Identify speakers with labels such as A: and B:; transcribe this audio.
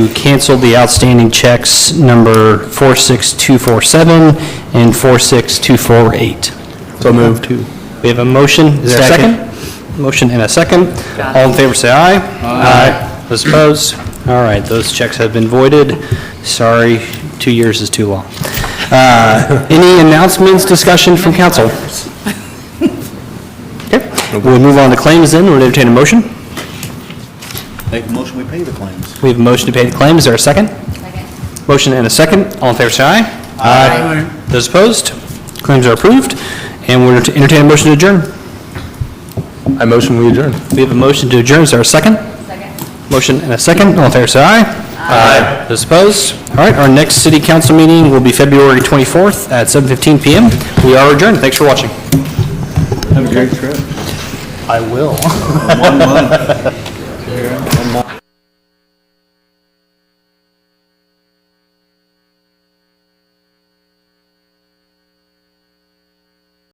A: cancel the outstanding checks number 46247 and 46248.
B: So moved.
A: We have a motion, is there a second? Motion and a second. All in favor, say aye. Aye. Those opposed? All right, those checks have been voided. Sorry, two years is too long. Uh, Any announcements, discussion from council? Okay, we'll move on to claims then, we'll entertain a motion.
C: Make a motion, we pay the claims.
A: We have a motion to pay the claims, is there a second? Second. Motion and a second, all in favor, say aye. Aye. Those opposed? Claims are approved, and we'll entertain a motion to adjourn.
B: I motion we adjourn.
A: We have a motion to adjourn, is there a second? Second. Motion and a second, all in favor, say aye. Aye. Those opposed? All right, our next city council meeting will be February 24th at 7:15 PM. We are adjourned, thanks for watching.
C: Have a great trip.
A: I will.
C: One month.